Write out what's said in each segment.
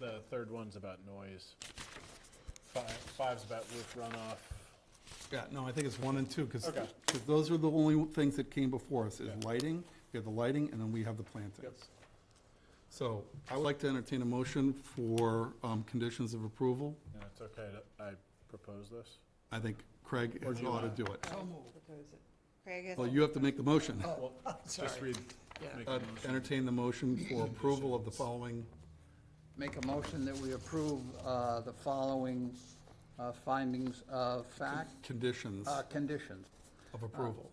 the third one's about noise. Five, five's about roof runoff. Yeah, no, I think it's one and two, because, Okay. those are the only things that came before us, is Yeah. lighting, we have the lighting, and then we have the plantings. So I would like to entertain a motion for um, conditions of approval. And it's okay that I propose this? I think Craig Or has do you ought to want- do it. Propose it. Craig is. Well, you have to make the motion. Well, Just read, Yeah. make Uh, a motion. Entertain the motion for approval of the following, Make a motion that we approve uh, the following uh, findings of fact, conditions uh, conditions of approval.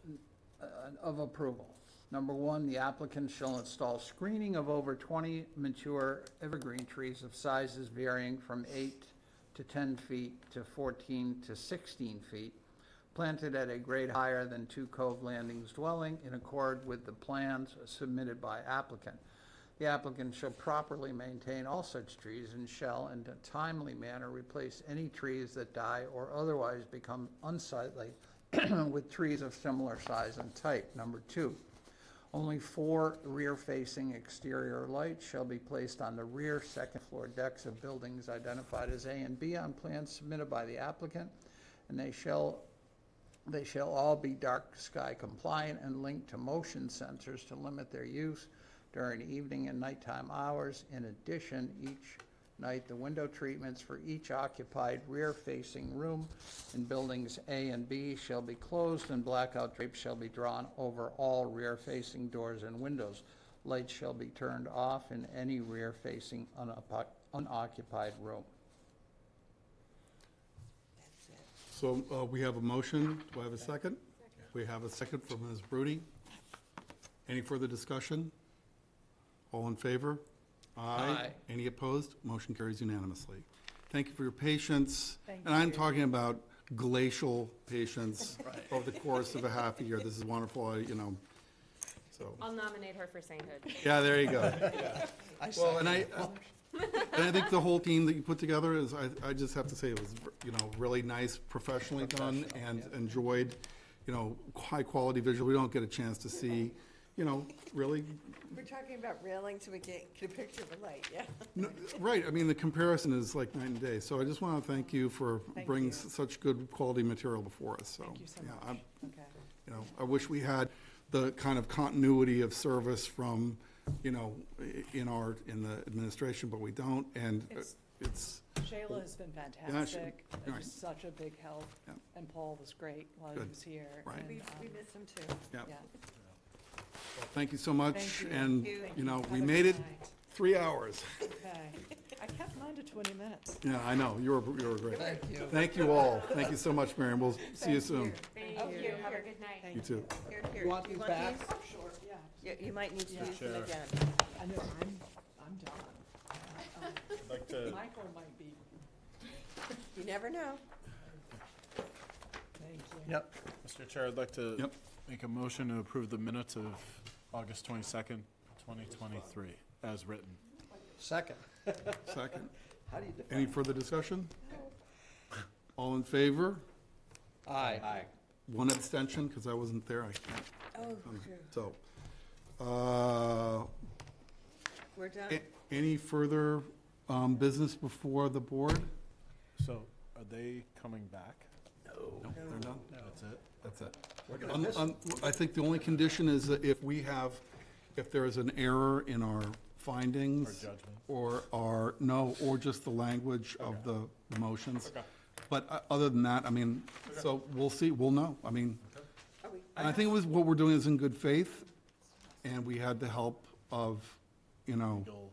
uh, of approval. Number one, the applicant shall install screening of over 20 mature evergreen trees of sizes varying from 8 to 10 feet to 14 to 16 feet, planted at a grade higher than two cove landings dwelling in accord with the plans submitted by applicant. The applicant shall properly maintain all such trees and shall in a timely manner replace any trees that die or otherwise become unsightly with trees of similar size and type. Number two, only four rear-facing exterior lights shall be placed on the rear second-floor decks of buildings identified as A and B on plans submitted by the applicant, and they shall, they shall all be dark sky compliant and linked to motion sensors to limit their use during evening and nighttime hours. In addition, each night, the window treatments for each occupied rear-facing room in buildings A and B shall be closed, and blackout drapes shall be drawn over all rear-facing doors and windows. Lights shall be turned off in any rear-facing unopo- unoccupied room. So uh, we have a motion, do I have a second? We have a second from Ms. Brody. Any further discussion? All in favor? Aye. Any opposed? Motion carries unanimously. Thank you for your patience. Thank And I'm talking about glacial patience over the course of a half a year. This is wonderful, I- you know, so. I'll nominate her for sainthood. Yeah, there you go. Well, and I, uh, and I think the whole team that you put together is, I, I just have to say it was, you know, really nice, professionally done and enjoyed, you know, high quality visual. We don't get a chance to see, you know, really, We're talking about railing so we get get a picture of a light, yeah. no, right, I mean, the comparison is like night and day. So I just want to thank you for Thank bringing you. s- such good quality material before us, so. Thank you so yeah, much. I'm- Okay. You know, I wish we had the kind of continuity of service from, you know, i- in our, in the administration, but we don't, and uh, It's- it's, Shayla has been fantastic, It was right. such a big help, Yeah. and Paul was great while he Good. was here. Right. and, We, um, we miss them too. yeah. Yeah, Thank you so much, you. and, Thank you. you know, we Have a made it good night. three hours. okay. I kept mine to 20 minutes. Yeah, I know, you were, you were great. Thank you. Thank you all, thank you so much, Mary, and we'll see you soon. Thank Oh, you. here, Have a here. good night. You too. Here, here. You want Do these back? these? Sure, yeah. Yeah, you might need to Yeah. use them Sure. again. I know, I'm, I'm done. I'd like to, Michael might be, You never know. thank you. Yep. Mr. Chair, I'd like to Yep. make a motion to approve the minutes of August twenty-second, twenty twenty-three, as written. Second. Second. How do you Any further discussion? All in favor? Aye. Aye. One abstention, because I wasn't there, I can't, Oh, so. Uh, We're done. a- Any further um, business before the board? So are they coming back? No, they're not? That's it? That's it. Un- un- I think the only condition is that if we have, if there is an error in our findings. Our judgment. Or our, no, or just the language of the the motions. But uh, other than that, I mean, so we'll see, we'll know. I mean, Are we, and I think it was, what we're doing is in good faith, and we had the help of, you know, You'll-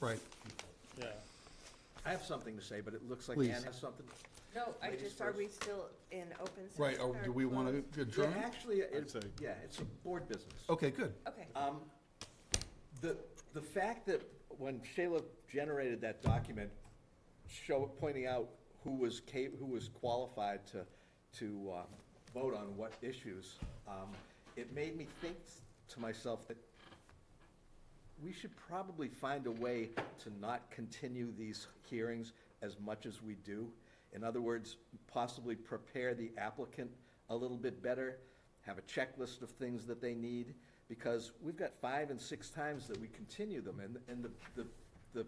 right, Yeah. I have something to say, but it looks like Please. Ann has something. no, I Ladies just, are first. we still in open session? right, or do we closed? want to Yeah, adjourn? actually, it's, say- yeah, it's a board business. Okay, good. Okay. Um, the, the fact that when Shayla generated that document, show, pointing out who was cap, who was qualified to, to, uh, vote on what issues, um, it made me think to myself that we should probably find a way to not continue these hearings as much as we do. In other words, possibly prepare the applicant a little bit better, have a checklist of things that they need, because we've got five and six times that we continue them, and, and the, the, the